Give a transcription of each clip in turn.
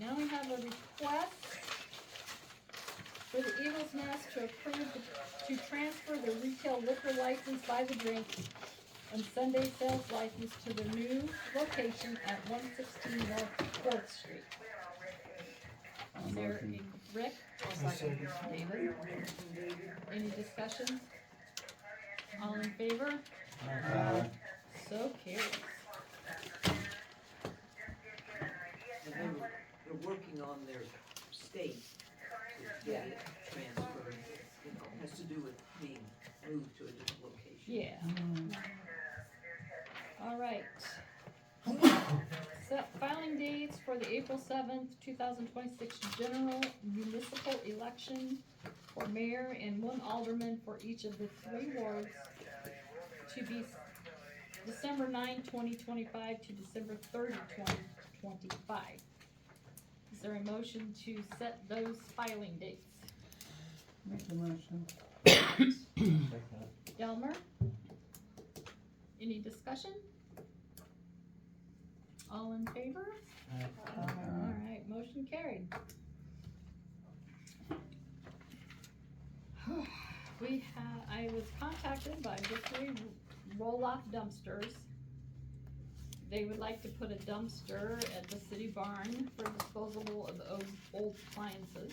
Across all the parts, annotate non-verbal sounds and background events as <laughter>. Now we have a request for the Eagles Nest to approve, the- to transfer the retail liquor license by the drink and Sunday sales license to the new location at one sixteen North Fourth Street. Is there Motion. a, Rick? David? Any discussion? All in favor? Aye. So carries. And they were, they're working on their state to get it transferred, you know, has to do with being moved to a different location. Yeah. All right. Set filing dates for the April seventh, two thousand twenty-six general municipal election for mayor and one alderman for each of the three wards to be December 9, 2025, to December 30, 2025. Is there a motion to set those filing dates? Make the motion. Delmer? Any discussion? All in favor? Alright, motion carried. We have, I was contacted by Victory Roll-Off Dumpsters. They would like to put a dumpster at the city barn for disposable of o- old appliances.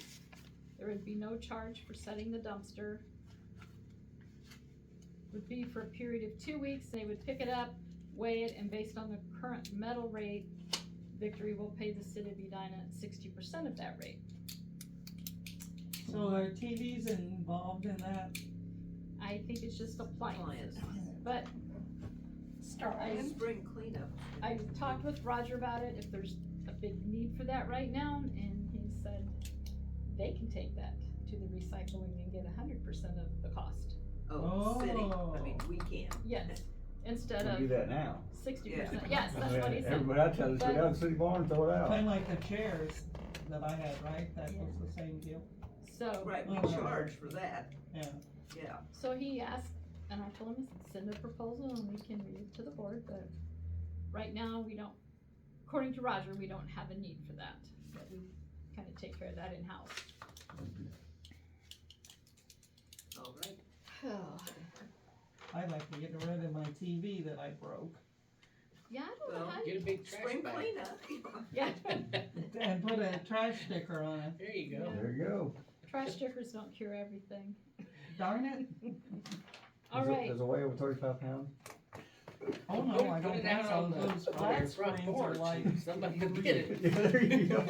There would be no charge for setting the dumpster. Would be for a period of two weeks, they would pick it up, weigh it, and based on the current metal rate, Victory will pay the city of Edina sixty percent of that rate. So are TVs involved in that? I think it's just appliances, Clients. but And I, Spring cleanup. I talked with Roger about it, if there's a big need for that right now, and he said they can take that to the recycling and get hundred percent of the cost. Oh, city, I Oh. mean, we can. Yes, instead We do of that now. sixty percent, yes, <laughs> that's what he said. Everybody I tell is, go down to City Barn, throw it out. Kinda like the chairs that I had, right? That was the same deal? So, Right, we Oh. charge for that, Yeah. yeah. so he asked, and I told him, send a proposal and we can read it to the board, but right now, we don't, according to Roger, we don't have a need for that, but we kinda take care of that in-house. All right. i like to get rid of my TV that I broke Yeah, I don't know Well, how you, Get a big trash Spring bag. cleanup. <laughs> yeah, and put a trash sticker on it. There you go. There you go. trash stickers don't cure everything. Darn it. All Does it- right, Does it weigh over thirty-five pounds? Oh Put no, it- I put don't it out think so. on the- Those on flat the front screens are porch. like, Somebody will <laughs> <laughs> get it. There you go.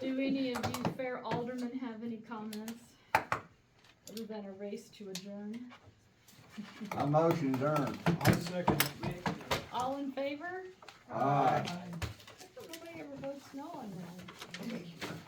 do any of you fair aldermen have any comments? Other than a race to adjourn? My motion's earned. I second. All in favor? Aye. I- Nobody ever votes no on that.